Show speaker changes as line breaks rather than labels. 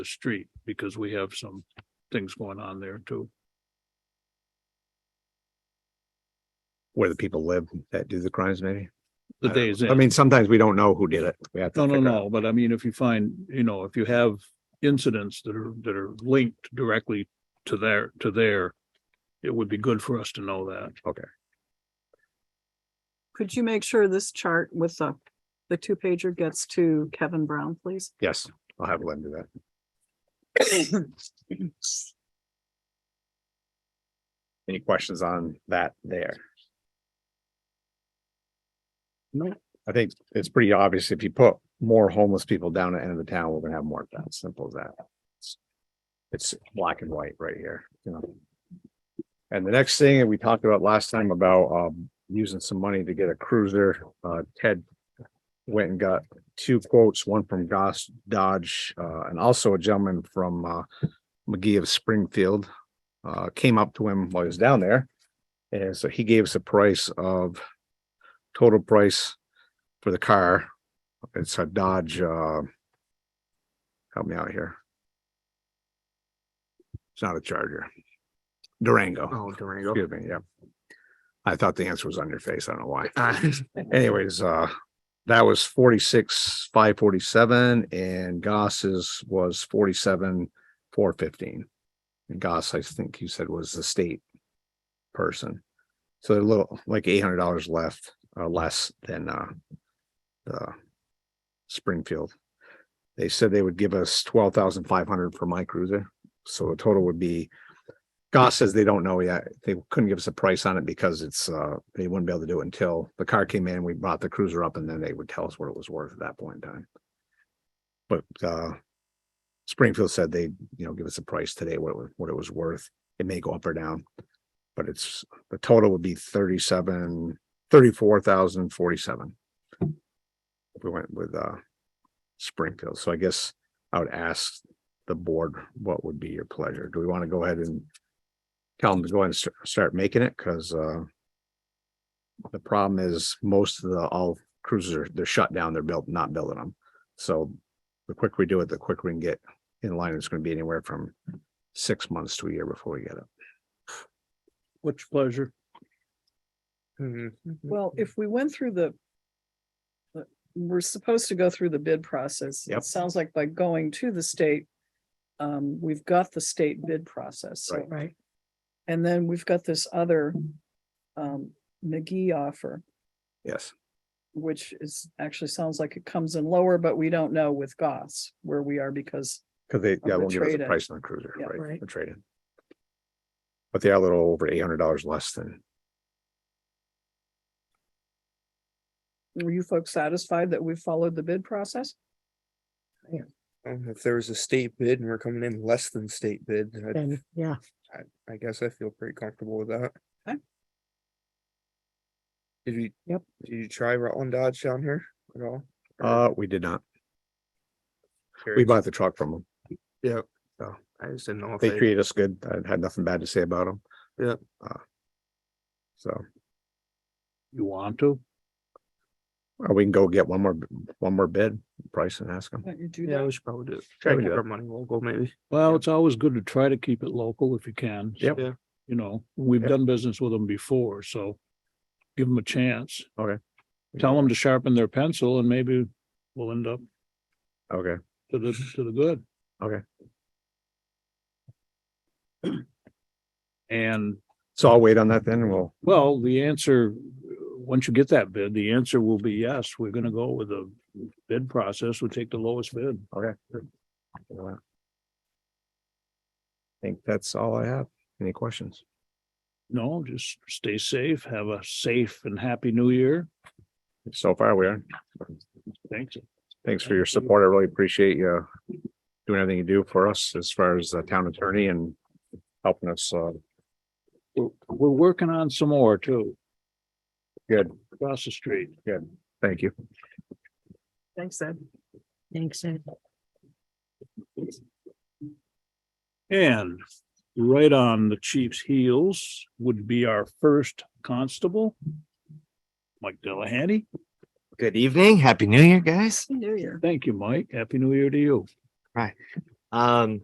the street because we have some things going on there too.
where the people live that do the crimes, maybe?
The
I don't know.
days
I
in.
mean, sometimes we don't know who did it. We have to.
No, no,
figure
no, but I mean, if you find, you know, if you have incidents that are, that are linked directly to their, to their, it would be good for us to know that.
Could you make sure this chart with the, the two pager gets to Kevin Brown, please?
Yes, I'll have Lynn do that. Any questions on that there? No, I think it's pretty obvious if you put more homeless people down at the end of the town, we're gonna have more of that, simple as that. It's- It's black and white right here, you know. And the next thing that we talked about last time about um using some money to get a cruiser, uh Ted went and got two quotes, one from Goss Dodge, uh, and also a gentleman from, uh, McGee of Springfield, uh, came up to him while he was down there. And so he gave us a price of total price for the car. It's a Dodge, uh, help me out here. It's not a Charger. Durango.
Oh, Durango.
Excuse me, yeah. I thought the answer was on your face. I don't know why. Anyways, uh, that was forty-six, five forty-seven and Goss's was forty-seven, four fifteen. And Goss, I think you said was the state person. So they're a little, like eight hundred dollars left, uh, less than, uh, the Springfield. They said they would give us twelve thousand five hundred for my cruiser. So the total would be Goss says they don't know yet. They couldn't give us a price on it because it's, uh, they wouldn't be able to do it until the car came in, we brought the cruiser up and then they would tell us what it was worth at that point in time. But, uh, Springfield said they, you know, give us a price today, what it, wa- what it was worth. It may go up or down. But it's, the total would be thirty-seven, thirty-four thousand forty-seven. If we went with, uh, Springfield. So I guess I would ask the board, what would be your pleasure? Do we want to go ahead and tell them to go ahead and st- start making it, cause uh. The problem is most of the, all cruisers are, they're shut down, they're built, not building them. So the quicker we do it, the quicker we can get in line. It's gonna be anywhere from six months to a year before we get it.
What's your pleasure?
Well, if we went through the the- we're supposed to go through the bid process. It
Yep.
Sounds like by going to the state, um, we've got the state bid process. so-
Right.
Right.
And then we've got this other, um, McGee offer,
Yes,
which is, actually sounds like it comes in lower, but we don't know with Goss where we are because
cause they, yeah,
the
won't give us a
trade-in.
price on the cruiser,
Yeah.
right,
Right.
the trade-in. But they are a little over eight hundred dollars less than,
were you folks satisfied that we followed the bid process?
If there was a state bid and we're coming in less than state bid, I'd-
Then, yeah,
I, I guess I feel pretty comfortable with that.
Okay.
Did you?
Yep.
Did you try Rutland Dodge down here at all? Or
uh, we did not, we
curious?
bought the truck from them.
Yep.
so.
I just didn't know if
They
they,
treated us good, I had nothing bad to say about them.
Yeah.
So.
You want to?
Or we can go get one more, b- one more bid price and ask them.
Why don't you do
yeah,
that?
we should probably do it.
Sure,
Try
we
to
do
keep
it.
our money local maybe.
Well, it's always good to try to keep it local if you can.
Yep.
Yeah.
You know, we've
Yep.
done business with them before, so give them a chance.
Okay.
Tell them to sharpen their pencil and maybe we'll end up
Okay,
to the, to the good.
Okay.
And
so I'll wait on that then. and We'll,
Well, the answer, uh, once you get that bid, the answer will be yes, we're gonna go with the bid process, we take the lowest bid.
okay. I Think that's all I have. Any questions?
No, just stay safe, have a safe and happy new year.
So far, we are.
Thanks.
Thanks for your support. I really appreciate you uh, doing everything you do for us as far as the town attorney and helping us. Uh,
We're, we're working on some more too.
Good.
Across the street.
thank you.
Thanks, Ed.
thanks, Ed.
And right on the chief's heels would be our first constable. Mike Delahanty.
Good evening. Happy New Year, guys.
New Year.
Thank you, Mike. Happy New Year to you.
Um,